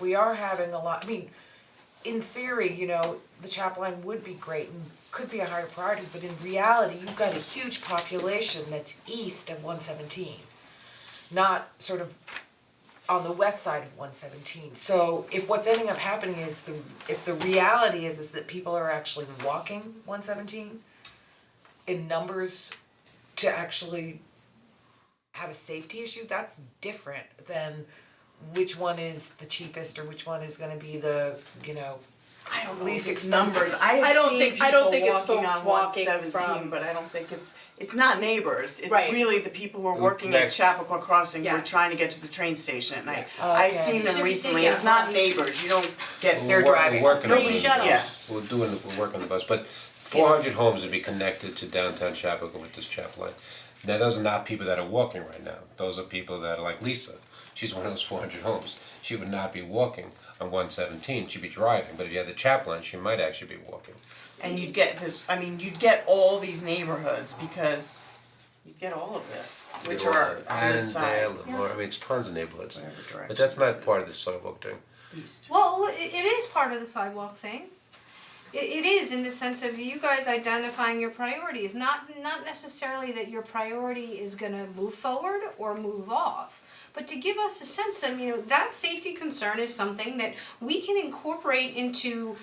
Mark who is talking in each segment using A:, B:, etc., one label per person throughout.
A: we are having a lot, I mean, in theory, you know, the chap line would be great and could be a higher priority, but in reality, you've got a huge population that's east of one seventeen. Not sort of on the west side of one seventeen, so if what's ending up happening is the, if the reality is, is that people are actually walking one seventeen in numbers to actually have a safety issue, that's different than which one is the cheapest or which one is gonna be the, you know,
B: I don't know
A: least
B: if it's
A: expensive.
B: numbers. I have
C: I don't
B: seen
C: think- I don't
B: people
C: think it's
B: walking
C: folks
B: on
C: walking
B: 117,
C: from-
B: but I don't think it's it's not neighbors. It's
C: Right.
B: really the people who are working at
D: Next.
B: Chappaqua Crossing who are
C: Yes. Oh,
B: trying to get to the train station at night. I've
A: Okay.
B: seen
E: So
B: them
E: we
B: recently.
E: take out
B: It's not
E: bus.
B: neighbors. You don't get
A: They're
B: their
D: We're wor-
A: driving.
D: We're working on
E: Free
D: it.
E: shuttle.
B: Yeah.
D: We're doing, we're working on the bus, but four hundred homes would be connected to downtown Chappaqua with this chap line. Now, those are not people that are walking right now, those are people that are like Lisa, she's one of those four hundred homes. She would not be walking on one seventeen, she'd be driving, but if you had the chap line, she might actually be walking.
B: and you'd get this I mean, you'd get all these neighborhoods because you'd get all of this, which are on this side.
D: Annandale, Lamar, I mean, it's tons of neighborhoods,
B: Whatever
D: but
B: direction
D: that's
B: this
D: not
B: is.
D: part of the sidewalk thing.
B: East.
E: Well, it, it is part of the sidewalk thing. It, it is in the sense of you guys identifying your priorities, not, not necessarily that your priority is gonna move forward or move off. But to give us a sense of, you know, that safety concern is something that we can incorporate into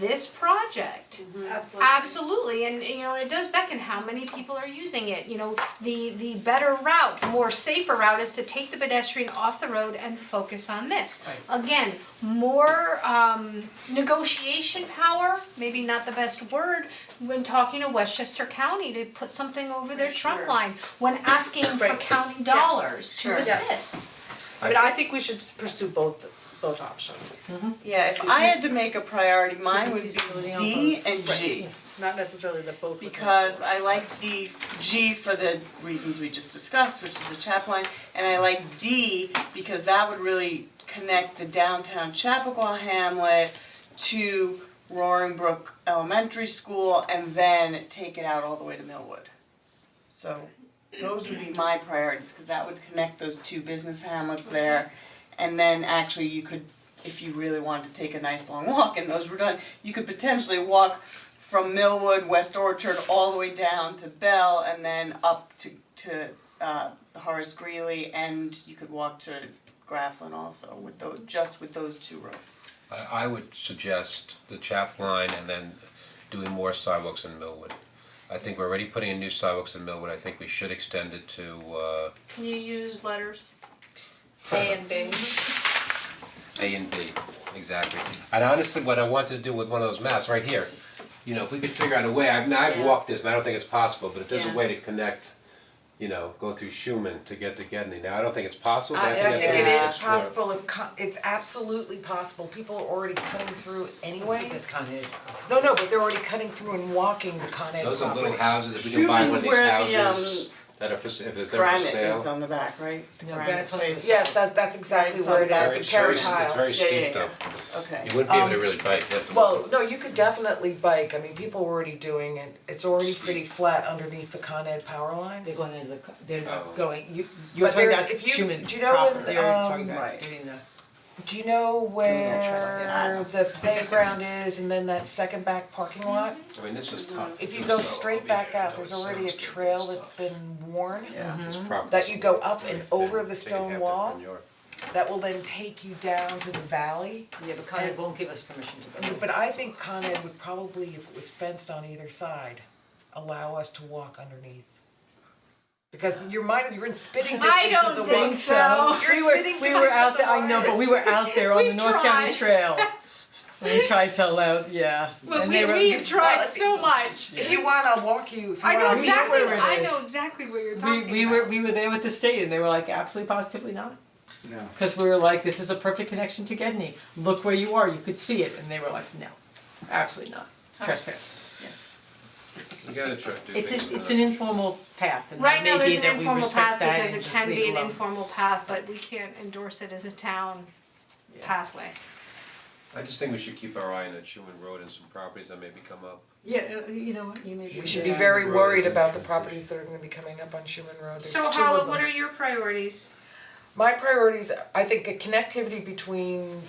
E: this project.
C: Absolutely.
E: Absolutely, and you know, it does beckon how many people are using it, you know, the the better route, more safer route is to take the pedestrian off the road and focus on this. Again, more um negotiation power, maybe not the best word, when talking to Westchester County to put something over their trunk
C: Sure.
E: line, when asking for
C: Right.
E: county dollars to
B: Sure.
C: Yes.
E: assist.
C: But I think we should pursue both, both options,
B: Yeah, if I had to make a priority, mine would be D and G.
C: not necessarily the both. with
B: because
C: them.
B: I like D, G for the reasons we just discussed, which is the Chapline, and I like D because that would really connect the downtown Chappaqua hamlet to Roaring Brook Elementary School and then take it out all the way to Millwood. So those would be my priorities, cause that would connect those two business hamlets there. And then actually you could, if you really wanted to take a nice long walk and those were done, you could potentially walk from Millwood, West Orchard, all the way down to Bell and then up to to uh Horace Greeley and you could walk to Grafflin also with those, just with those two roads.
D: I I would suggest the chap line and then doing more sidewalks in Millwood. I think we're already putting in new sidewalks in Millwood, I think we should extend it to uh
E: Can you use letters?
C: A and B.
D: A and B, exactly. And honestly, what I wanted to do with one of those maps right here, you know, if we could figure out a way, I've now I've
C: Yeah.
D: walked this and I don't think it's possible, but if there's a
C: Yeah.
D: way to connect, you know, go through Schuman to get to Gedney, now I don't think it's possible, but
A: I
D: I think
A: I
D: that's
A: think
D: something
A: it
D: we
A: is
D: should explore.
A: possible if, co- it's absolutely possible, people are already cutting through anyways. No, no, but they're already cutting through and walking the Con Ed
D: Those are little
A: property.
D: houses, if we can buy one of
B: Schumann's
D: these
B: where the,
D: houses that are for, s- if it's there for sale.
B: Granite is on the back, right? The
A: No,
B: granite
A: that's what-
B: space.
A: Yes, that, that's exactly
B: Right,
A: where it
B: some
A: is,
B: guys-
A: the
D: It's very,
A: carrot
D: s-
A: tile.
D: it's very
B: Yeah, yeah,
D: steep though.
B: yeah. Okay.
D: You wouldn't be able to really bike, you have to walk.
A: Um, Well, no, you could definitely bike, I mean, people were already doing it, it's already pretty flat underneath the Con Ed power lines.
F: They're going into the, co- they're
D: Oh.
F: not going, you, you're
A: But
F: talking
A: there's,
F: about
A: if you,
F: Schumann
A: do you know
F: proper,
A: when,
F: they're talking
A: um,
F: about
B: Right.
F: doing the.
A: do you know
F: no
A: where
F: trespassing.
A: the playground is and then that second back parking lot?
D: I mean, this is tough.
A: mm, If you
D: This
A: go
D: is all
A: straight
D: over
A: back
D: here,
A: out,
D: though,
A: there's
D: it
A: already a
D: sounds good
A: trail
D: and
A: that's
D: stuff.
A: been worn.
B: Yeah.
D: It's proper.
A: that you go up
D: Very
A: and
D: thin,
A: over the
D: so you'd
A: stone
D: have to
A: wall.
D: thin your-
A: That will then take you down to the valley.
F: Yeah, but Con Ed won't give us permission to go.
A: But I think Con Ed would probably, if it was fenced on either side, allow us to walk underneath. Because your mind is, you're in spitting
E: I
A: distance of the
E: don't
A: water.
E: think so.
A: You're in
F: We were,
A: spitting
F: we
A: distance
F: were
A: of
F: out
A: the
F: there, I know, but
A: waters.
F: we were out there on
E: We
F: the North County
E: tried.
F: Trail. We tried to allow, yeah,
E: Well,
F: and
E: we
F: they were.
E: we have
A: Well,
E: tried
A: if-
E: so much.
A: If you want, I'll walk you, if you
E: I
A: want,
E: know
A: I'll meet you
E: exactly,
F: where it
E: I know
F: is.
E: exactly what you're talking
F: We,
E: about.
F: we were, we were there with the state and they were like, absolutely positively not. No. Cause we were like, this is a perfect connection to Gedney, look where you are, you could see it, and they were like, no, absolutely not, trespass.
D: You gotta try to do
F: It's
D: things
F: a, it's
D: without-
F: an informal path, and
E: Right
F: that
E: now,
F: may
E: there's
F: be
E: an
F: that we
E: informal
F: respect
E: path
F: that
E: because
F: and
E: it
F: just
E: can
F: leave
E: be
F: it
E: an
F: alone.
E: informal path, but we can't endorse it as a town
F: Yeah.
E: pathway.
D: I just think we should keep our eye on that Schuman Road and some properties that may become up.
F: Yeah, uh, you know what, you may be.
A: We should be
D: Yeah.
A: very
D: Roads
A: worried
D: and
A: about the
D: transportation.
A: properties that are gonna be coming up on Schuman Road, there's two
E: So
A: of
E: Hala,
A: them.
E: what are your priorities?
A: My priorities, I think a connectivity between